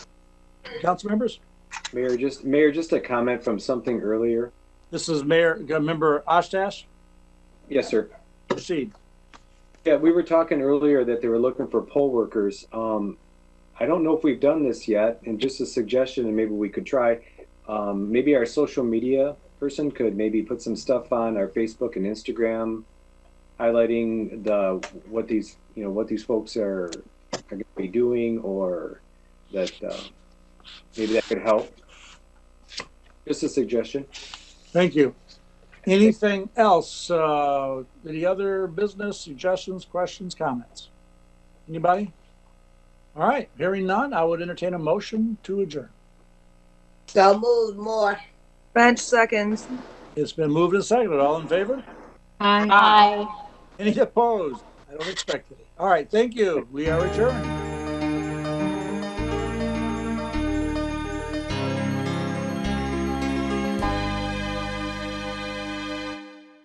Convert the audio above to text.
Council members? Mayor, just, Mayor, just a comment from something earlier. This is Mayor, uh, Member Ostash. Yes, sir. Proceed. Yeah, we were talking earlier that they were looking for poll workers. Um, I don't know if we've done this yet, and just a suggestion, and maybe we could try. Um, maybe our social media person could maybe put some stuff on our Facebook and Instagram, highlighting the what these you know what these folks are are going to be doing, or that uh, maybe that could help. Just a suggestion. Thank you. Anything else? Uh, any other business suggestions, questions, comments? Anybody? All right, hearing none, I would entertain a motion to adjourn. So moved more. Bench seconds. It's been moved and seconded. All in favor? Aye. Any opposed? I don't expect it. All right, thank you. We are adjourned.